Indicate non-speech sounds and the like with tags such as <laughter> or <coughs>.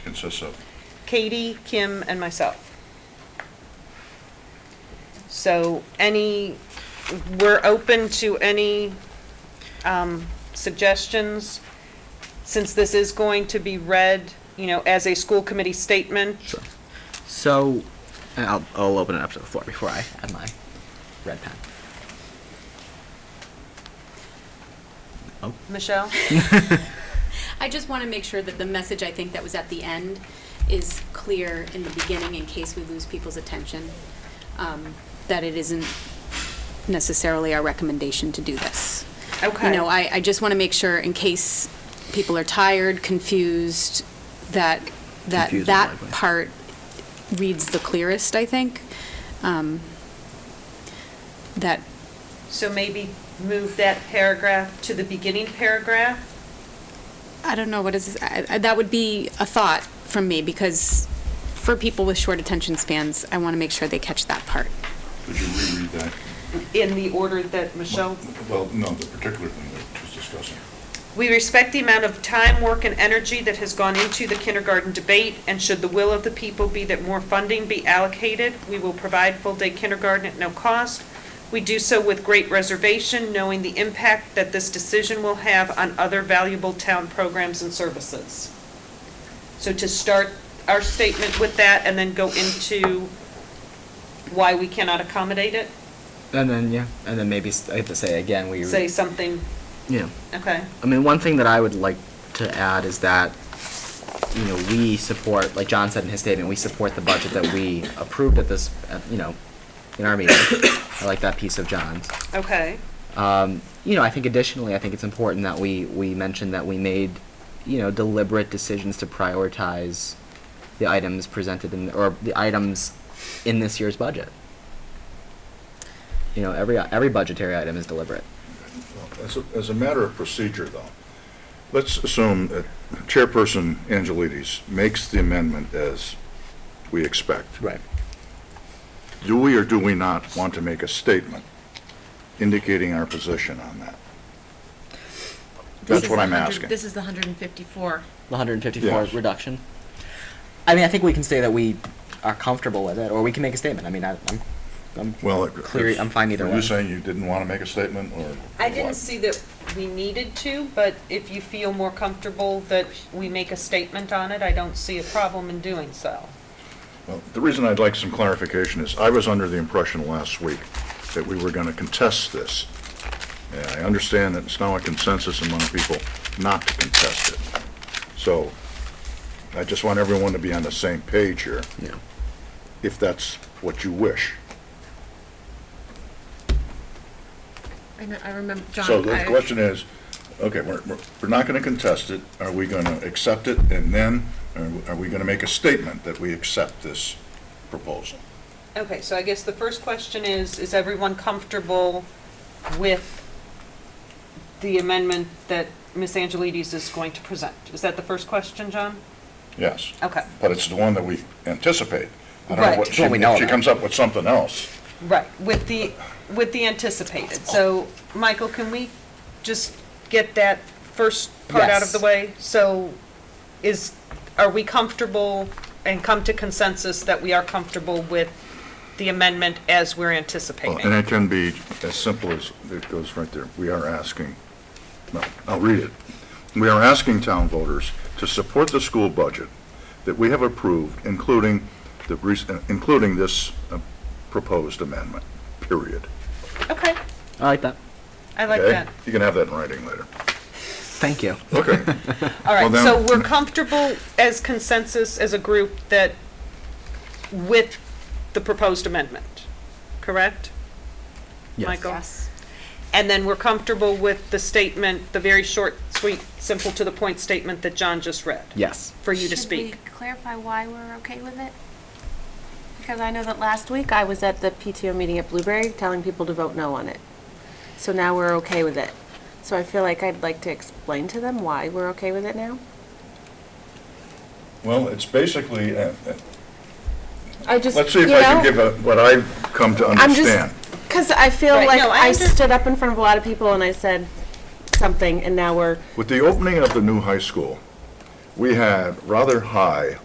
consists of? Katie, Kim, and myself. So any, we're open to any um, suggestions, since this is going to be read, you know, as a school committee statement. Sure. So, I'll, I'll open it up to the floor before I add my red pen. Michelle? I just want to make sure that the message I think that was at the end is clear in the beginning in case we lose people's attention, um, that it isn't necessarily our recommendation to do this. Okay. You know, I, I just want to make sure in case people are tired, confused, that, that, Confused is that my point. part reads the clearest, I think. Um, That, So maybe move that paragraph to the beginning paragraph? I don't know, what is, this- I- I- that would be a thought from me, because for people with short attention spans, I want to make sure they catch that part. Could you reread that? In the order that Michelle? Well, no, the particular thing we we're just discussing. We respect the amount of time, work, and energy that has gone into the kindergarten debate, and should the will of the people be that more funding be allocated, we will provide full-day kindergarten at no cost. We do so with great reservation, knowing the impact that this decision will have on other valuable town programs and services. So to start our statement with that and then go into why we cannot accommodate it, And then, yeah, and then maybe s- I have to say again, we. say something, Yeah. okay? I mean, one thing that I would like to add is that, you know, we support, like John said in his statement, we support the budget that we approved at this, at, you know, in our meeting. <coughs> I like that piece of John's. Okay, Um, you know, I think additionally, I think it's important that we, we mention that we made, you know, deliberate decisions to prioritize the items presented in, or the items in this year's budget. You know, every, every budgetary item is deliberate. As a, as a matter of procedure, though, let's assume that Chairperson Angelides makes the amendment as we expect. Do we or do we not want to make a statement indicating our position on that? This That's is what the I'm 100 asking. This is the 154. The hundred and fifty-four Yes. reduction. I mean, I think we can say that we are comfortable with it, or we can make a statement. I mean, I, I'm, I'm Well, it- clear, I'm fine either were way. you saying you didn't want to make a statement, or? I didn't what? see that we needed to, but if you feel more comfortable that we make a statement on it, I don't see a problem in doing so. Well, The reason I'd like some clarification is, I was under the impression last week that we were going to contest this. And I understand that it's now a consensus among people not to contest it. So I just want everyone to be on the same page here, Yeah. if that's what you wish. I know- I remember, John. So the I- question is, okay, we're, we're- we're not going to contest it. Are we going to accept it? And then, are- are we going to make a statement that we accept this proposal? Okay, so I guess the first question is, is everyone comfortable with the amendment that Ms. Angelides is going to present? Is that the first question, John? Yes. Okay, But it's the one that we anticipate. I don't know Right. what It's she, what we know if she about. comes up with something else. right, with the, with the anticipated. So, Michael, can we just get that first part out of the Yes. way? So is, are we comfortable and come to consensus that we are comfortable with the amendment as we're Well, And anticipating? it can be as simple as, it goes right there. We are asking, no, I'll read it. We are asking town voters to support the school budget that we have approved, including the, rec- including this uh, proposed amendment, period. Okay, I like that. I like Okay? that. You can have that in writing later. Thank you. Okay. All right, Well, so then- we're comfortable as consensus, as a group, that with the proposed amendment, correct? Yes. Michael? And then we're comfortable with the statement, the very short, sweet, simple, to the point statement that John just read? Yes. For you to Should speak? we clarify why we're okay with it? Because I know that last week I was at the PTO meeting at Blueberry telling people to vote no on it. So now we're okay with it. So I feel like I'd like to explain to them why we're okay with it now. Well, it's basically, uh, uh, I just, let's see if I can give a- what I've come to I'm just- understand. Because I feel Right, like no, I I under- stood up in front of a lot of people and I said something and now we're, With the opening of the new high school, we had rather high